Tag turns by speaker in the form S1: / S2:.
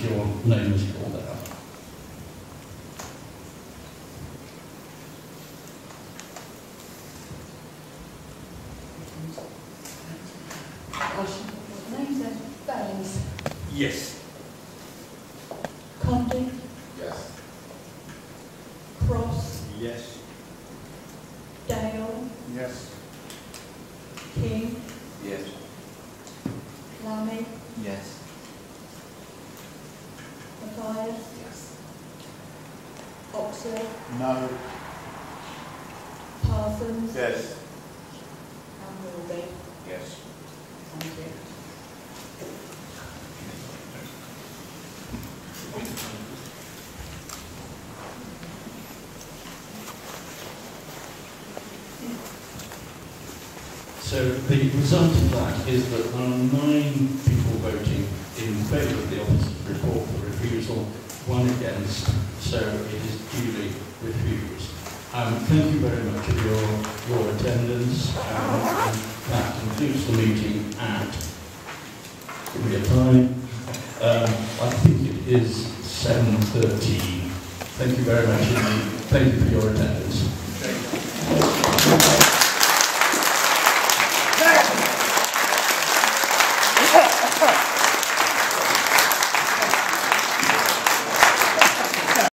S1: name is pulled out.
S2: Names and Baines,
S1: Yes.
S2: Condon,
S3: Yes.
S2: Cross,
S3: Yes.
S2: Dale,
S3: Yes.
S2: King,
S3: Yes.
S2: Lamy,
S3: Yes.
S2: Matthias,
S3: Yes.
S2: Oxley,
S3: No.
S2: Parsons,
S3: Yes.
S2: and Wilby.
S3: Yes.
S2: Thank you.
S1: So the result of that is that there are nine people voting in favour of the opposite report for refusal, one against, so it is duly refused. Um, thank you very much for your, your attendance, um, and that concludes the meeting at, give me a time, um, I think it is 7.13. Thank you very much indeed, thank you for your attendance.